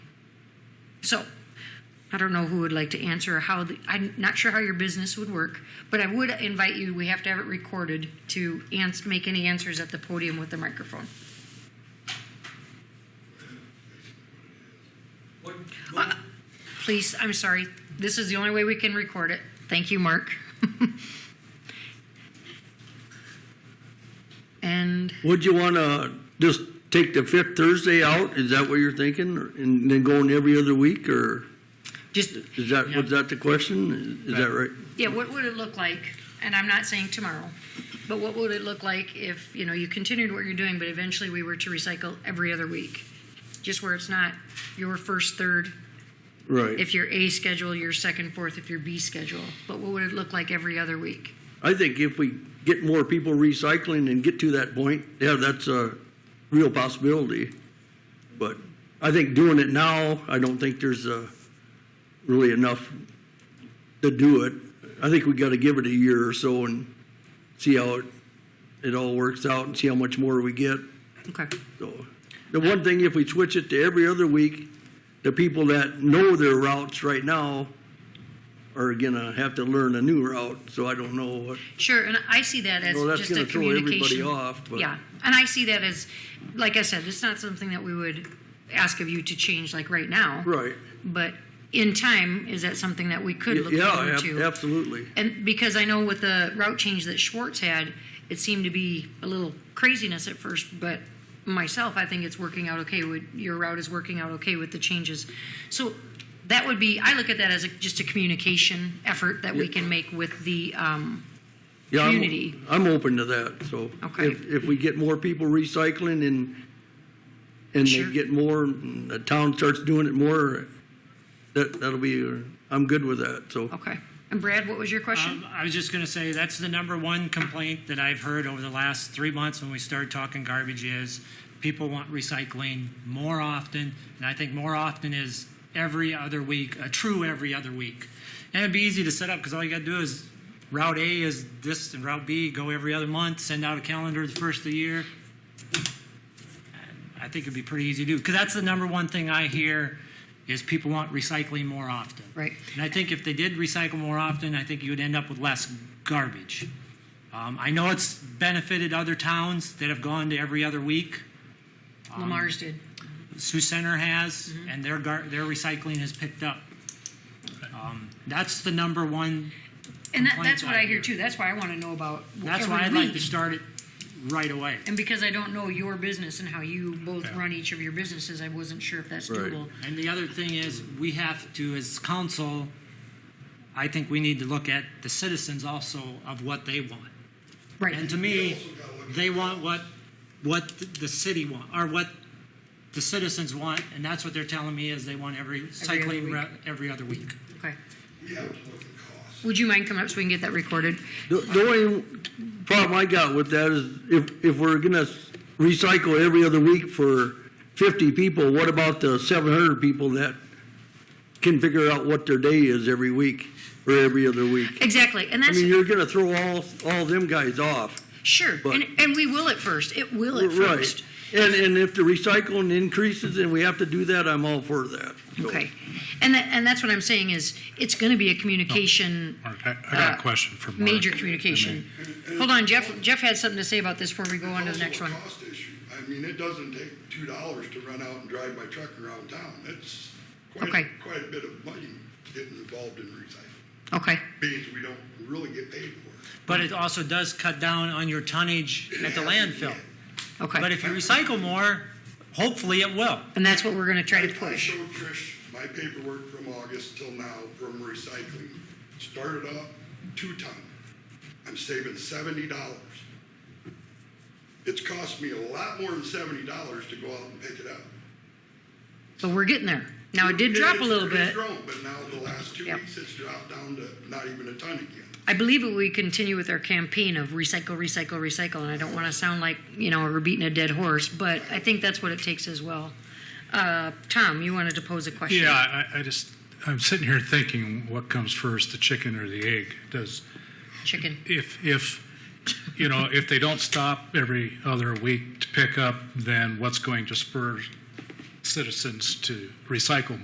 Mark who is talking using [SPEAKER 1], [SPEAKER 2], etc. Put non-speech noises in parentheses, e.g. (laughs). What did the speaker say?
[SPEAKER 1] So I don't know who would like to answer or how, the- I'm not sure how your business would work, but I would invite you, we have to have it recorded, to ans- make any answers at the podium with the microphone.
[SPEAKER 2] What,
[SPEAKER 1] Uh, Please, I'm sorry, this is the only way we can record it. Thank you, Mark. (laughs) And
[SPEAKER 3] Would you want to just take the fifth Thursday out? Is that what you're thinking? Or- And then going every other week or
[SPEAKER 1] just,
[SPEAKER 3] is that, was that the question? Is that right?
[SPEAKER 1] yeah, what would it look like? And I'm not saying tomorrow, but what would it look like if, you know, you continued what you're doing, but eventually we were to recycle every other week? Just where it's not your first, third,
[SPEAKER 3] Right.
[SPEAKER 1] if you're A schedule, your second, fourth, if you're B schedule. But what would it look like every other week?
[SPEAKER 3] I think if we get more people recycling and get to that point, yeah, that's a real possibility. But I think doing it now, I don't think there's uh, really enough to do it. I think we got to give it a year or so and see how it, it all works out and see how much more we get.
[SPEAKER 1] Okay.
[SPEAKER 3] So, the one thing, if we switch it to every other week, the people that know their routes right now are gonna have to learn a new route, so I don't know what,
[SPEAKER 1] Sure, and I see that as
[SPEAKER 3] Well, that's
[SPEAKER 1] just a
[SPEAKER 3] gonna throw
[SPEAKER 1] communication.
[SPEAKER 3] everybody off, but-
[SPEAKER 1] Yeah, and I see that as, like I said, it's not something that we would ask of you to change like right now.
[SPEAKER 3] right.
[SPEAKER 1] But in time, is that something that we could look
[SPEAKER 3] Yeah,
[SPEAKER 1] forward
[SPEAKER 3] ab-
[SPEAKER 1] to?
[SPEAKER 3] absolutely.
[SPEAKER 1] And because I know with the route change that Schwartz had, it seemed to be a little craziness at first, but myself, I think it's working out okay with, your route is working out okay with the changes. So that would be, I look at that as a, just a communication effort that we can make with the, um,
[SPEAKER 3] Yeah, I'm-
[SPEAKER 1] Community.
[SPEAKER 3] I'm open to that, so.
[SPEAKER 1] Okay.
[SPEAKER 3] If, if we get more people recycling and, and
[SPEAKER 1] Sure.
[SPEAKER 3] they get more, and the town starts doing it more, that, that'll be, uh, I'm good with that, so.
[SPEAKER 1] okay. And Brad, what was your question?
[SPEAKER 4] Um, I was just going to say that's the number one complaint that I've heard over the last three months when we started talking garbage is people want recycling more often, and I think more often is every other week, a true every other week. And it'd be easy to set up because all you got to do is route A is this and route B go every other month, send out a calendar the first of the year. I think it'd be pretty easy to do because that's the number one thing I hear is people want recycling more often.
[SPEAKER 1] Right.
[SPEAKER 4] And I think if they did recycle more often, I think you would end up with less garbage. Um, I know it's benefited other towns that have gone to every other week. Um,
[SPEAKER 1] Lamar's did.
[SPEAKER 4] Sioux Center has,
[SPEAKER 1] Mm-hmm.
[SPEAKER 4] and their gar- their recycling has picked up. Um, that's the number one.
[SPEAKER 1] And that, that's
[SPEAKER 4] complaints
[SPEAKER 1] what
[SPEAKER 4] I
[SPEAKER 1] I hear
[SPEAKER 4] hear.
[SPEAKER 1] too. That's why I want to know about
[SPEAKER 4] That's
[SPEAKER 1] every
[SPEAKER 4] why I'd like
[SPEAKER 1] week.
[SPEAKER 4] to start it right away.
[SPEAKER 1] And because I don't know your business and how you both
[SPEAKER 4] Yeah.
[SPEAKER 1] run each of your businesses, I wasn't sure if that's
[SPEAKER 3] Right.
[SPEAKER 1] doable.
[SPEAKER 4] And the other thing is, we have to, as council, I think we need to look at the citizens also of what they want.
[SPEAKER 1] Right.
[SPEAKER 4] And to me, they want what, what the city want, or what the citizens want, and that's what they're telling me is they want every cycling
[SPEAKER 1] week.
[SPEAKER 4] re- every other week.
[SPEAKER 1] Okay.
[SPEAKER 5] We have to look at cost.
[SPEAKER 1] Would you mind coming up so we can get that recorded?
[SPEAKER 3] The, the only problem I got with that is if, if we're gonna recycle every other week for fifty people, what about the seven hundred people that can figure out what their day is every week or every other week?
[SPEAKER 1] Exactly. And
[SPEAKER 3] I
[SPEAKER 1] that's
[SPEAKER 3] mean, you're gonna throw all, all them guys off.
[SPEAKER 1] sure.
[SPEAKER 3] but-
[SPEAKER 1] and, and we will at first. It will at
[SPEAKER 3] Right.
[SPEAKER 1] first.
[SPEAKER 3] And, and if the recycling increases and we have to do that, I'm all for that. So-
[SPEAKER 1] Okay. And that, and that's what I'm saying is it's going to be a communication
[SPEAKER 6] Mark, Oh, I, I got
[SPEAKER 1] uh,
[SPEAKER 6] a question for Mark.
[SPEAKER 1] major communication. Hold on, Jeff. Jeff had something to say about this before we go on to the
[SPEAKER 5] Also
[SPEAKER 1] next
[SPEAKER 5] a
[SPEAKER 1] one.
[SPEAKER 5] cost issue. I mean, it doesn't take two dollars to run out and drive my truck around town. That's quite,
[SPEAKER 1] Okay.
[SPEAKER 5] a- quite a bit of money getting involved in recycling.
[SPEAKER 1] Okay.
[SPEAKER 5] Beans we don't really get paid for.
[SPEAKER 4] But it also does cut down on your tonnage at the landfill.
[SPEAKER 1] Okay.
[SPEAKER 4] But if you recycle more, hopefully it will.
[SPEAKER 1] and that's what we're going to try to
[SPEAKER 5] I
[SPEAKER 1] push.
[SPEAKER 5] showed Trish my paperwork from August till now from recycling. Started off two ton. I'm saving seventy dollars. It's cost me a lot more than seventy dollars to go out and pick it up.
[SPEAKER 1] But we're getting there. Now it did drop a
[SPEAKER 5] It's-
[SPEAKER 1] little
[SPEAKER 5] it has
[SPEAKER 1] bit.
[SPEAKER 5] grown, but now the last two
[SPEAKER 1] Yep.
[SPEAKER 5] weeks, it's dropped down to not even a ton again.
[SPEAKER 1] I believe if we continue with our campaign of recycle, recycle, recycle, and I don't want to sound like, you know, we're beating a dead horse, but I think that's what it takes as well. Uh, Tom, you wanted to pose a question?
[SPEAKER 6] Yeah, I, I just, I'm sitting here thinking, what comes first, the chicken or the egg? Does,
[SPEAKER 1] Chicken.
[SPEAKER 6] if, if, you know, if they don't stop every other week to pick up, then what's going to spur citizens to recycle